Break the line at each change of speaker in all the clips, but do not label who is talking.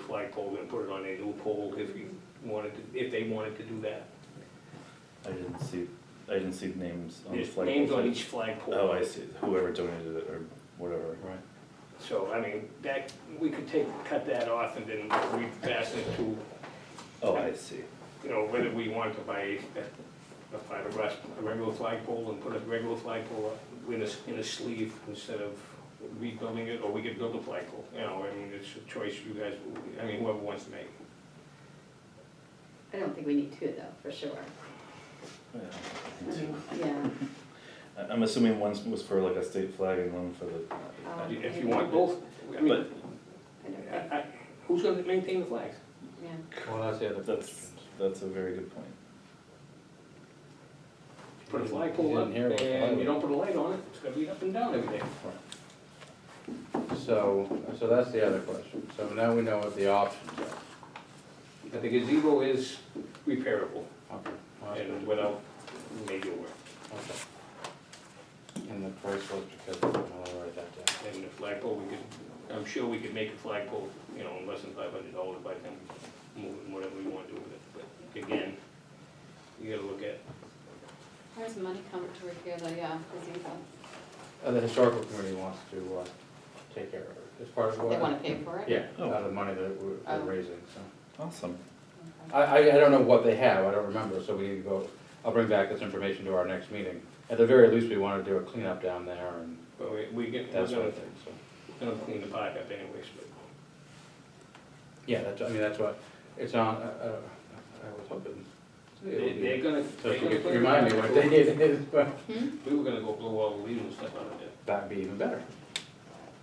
flagpole and put it on a new pole if you wanted to, if they wanted to do that.
I didn't see, I didn't see the names on the
There's
flag.
names on each flagpole.
Oh, I see, whoever donated it or whatever.
Right.
So, I mean, that, we could take, cut that off and then refasten it to,
Oh, I see.
you know, whether we wanted to buy a a fiberglass, a regular flagpole and put a regular flagpole up in a, s- in a sleeve instead of rebuilding it, or we could build a flagpole, you know, I mean, it's a choice you guys, I mean, whoever wants to make.
I don't think we need two though, for sure.
Yeah, I think so.
Yeah,
I- I'm assuming one was for like a state flag and one for
Um,
the.
If you want both, I mean,
But
I don't think,
I- I- who's gonna maintain the flags?
yeah.
Well, that's the other
that's,
question.
that's a very good point.
Put a flagpole up,
You didn't hear what-
and you don't put a light on it, it's gonna be up and down every day.
So, so that's the other question. So now we know what the options
But the gazebo is repairable,
are. Okay. All right.
and without major work.
Okay. And the price was because, I'll write that down.
And the flagpole, we could, I'm sure we could make a flagpole, you know, in less than five hundred dollars by then, move it, whatever we want to do with it. But again, you gotta look at,
Where's the money coming to repair the, uh, gazebo?
Uh, The historical committee wants to, uh, take care of it. It's part of what?
They wanna pay for it?
Yeah,
Oh.
out of the money that we're,
Oh.
they're raising, so.
Awesome.
Okay.
I, I, I don't know what they have, I don't remember, so we need to go, I'll bring back this information to our next meeting. At the very least, we wanna do a cleanup down there and
but we, we get, we're
that sort
gonna,
of thing, so.
gonna clean the park up anyways, but.
Yeah, that's, I mean, that's what, it's on, uh, uh, I was hoping. it would
They-
be-
They're gonna.
So
they're
if you
gonna
could
put it
remind
on
me
the
what
floor.
day it is, but
Hmm?
We were gonna go blow all the leaves and stuff out of there.
that'd be even better.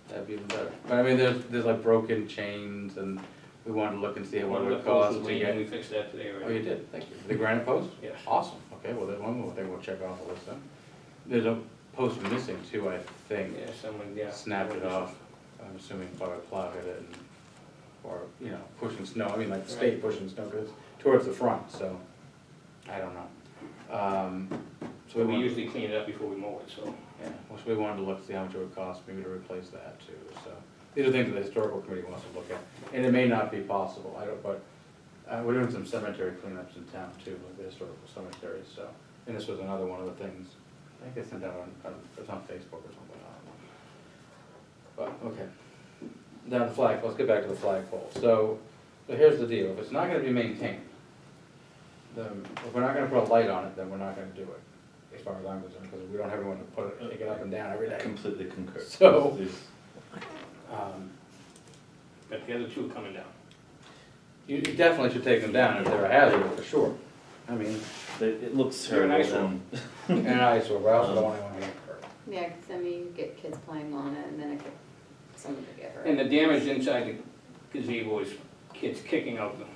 That'd be even better. But I mean, there's, there's like broken chains and we wanted to look and see
One
what it
of the
would
posts
cost
was
to
leaning,
get.
we fixed that today,
Oh, you
right?
did, thank you. The granite post?
Yes.
Awesome, okay, well, there's one more thing we'll check off the list then. There's a post missing too, I think.
Yeah, someone, yeah.
Snapped it off, I'm assuming probably plowed it and, or, you know, pushing snow, I mean, like the state pushing snow, because towards the front, so, I don't know. Um,
So
So
we
want-
usually clean it up before we mow it, so.
Yeah, well, so we wanted to look, see how much it would cost maybe to replace that too, so. These are things that the historical committee wants to look at, and it may not be possible, I don't, but, uh, we're doing some cemetery cleanups in town too, like the historical cemeteries, so. And this was another one of the things, I think they sent out on, on, it's on Facebook or something, I don't know. But, okay. Now the flag, let's get back to the flagpole, so, so here's the deal, if it's not gonna be maintained, then, if we're not gonna put a light on it, then we're not gonna do it, as far as I'm concerned, because we don't have anyone to put it, take it up and down every
I
day.
completely concur.
So-
There's-
Um,
But the other two are coming down.
You you definitely should take them down if they're a hazard, for sure. I mean,
It, it looks
You're an
terrible
eyesore.
and
and I saw, well, I don't want anyone to get hurt.
Yeah, 'cause I mean, you get kids playing on it and then it could, someone could get hurt.
And the damage inside the gazebo is kids kicking out the,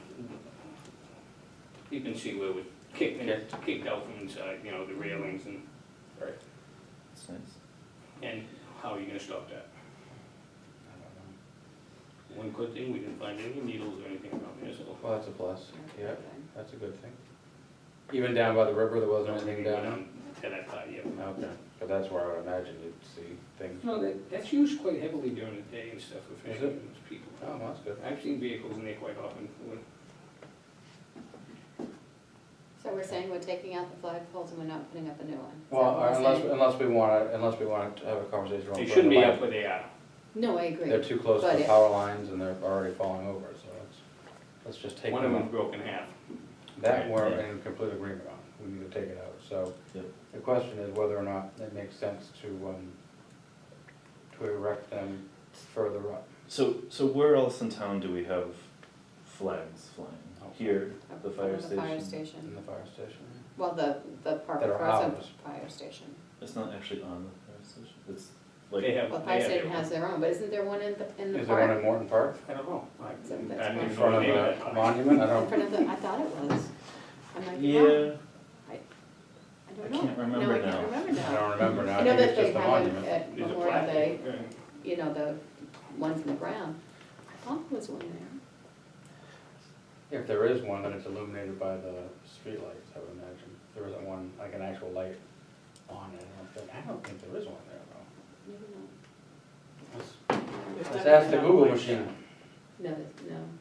you can see where it was kicked, and it's kicked out from inside, you know, the railings and,
it's nice.
and how are you gonna stop that? One good thing, we didn't find any needles or anything around there, so.
Well, that's a plus, yeah,
Everything.
that's a good thing. Even down by the river, there wasn't
Nothing
anything
went
down?
To that part, yeah.
Okay, but that's where I would imagine you'd see things.
No, that, that's used quite heavily during the day and stuff for
Is
fishing and people.
Oh, that's good.
I've seen vehicles in there quite often, when-
So we're saying we're taking out the flagpoles and we're not putting up a new one? Is that
Well,
what we're
unless,
saying?
unless we want to, unless we want to have a conversation. around
they shouldn't be
putting a
up
light-
where they are.
No, I agree.
They're too close to
But
the
if-
power lines and they're already falling over, so let's, let's just take
One of
them out.
them broke in half.
That we're
Yeah.
in complete agreement on, we need to take it out, so.
Yep.
The question is whether or not it makes sense to, um, to erect them further up.
So, so where else in town do we have flags flying?
Oh.
Here,
up
the
in
fire
The fire
station.
In
station.
the fire station?
Well, the, the park
That are
across from the
ours.
fire station.
It's not actually on the fire station. It's like
They have,
Well, the
they
fire
have their
station
own.
has their own, but isn't there one in the, in the
Is there one
park?
in Morton Park?
I don't know. I-
So that's
I
fine.
didn't
In
don't
front
know
of
the name of
a
that.
monument, I
In
don't,
front of the, I thought it was. I might be wrong.
yeah.
I don't
I
know.
can't remember
No, I
now.
can't remember
I
now.
don't remember now,
I
I
know
think
that
it's
they
just the
have it
monument.
at
There's a
Memorial Day,
plaque. Yeah.
you know, the ones in the ground. I thought there was one there.
If there is one, then it's illuminated by the streetlights, I would imagine. There isn't one, like an actual light on it, I don't think, I don't think there is one there though.
Maybe
Let's-
not.
Let's ask the Google machine.
No, it's- no.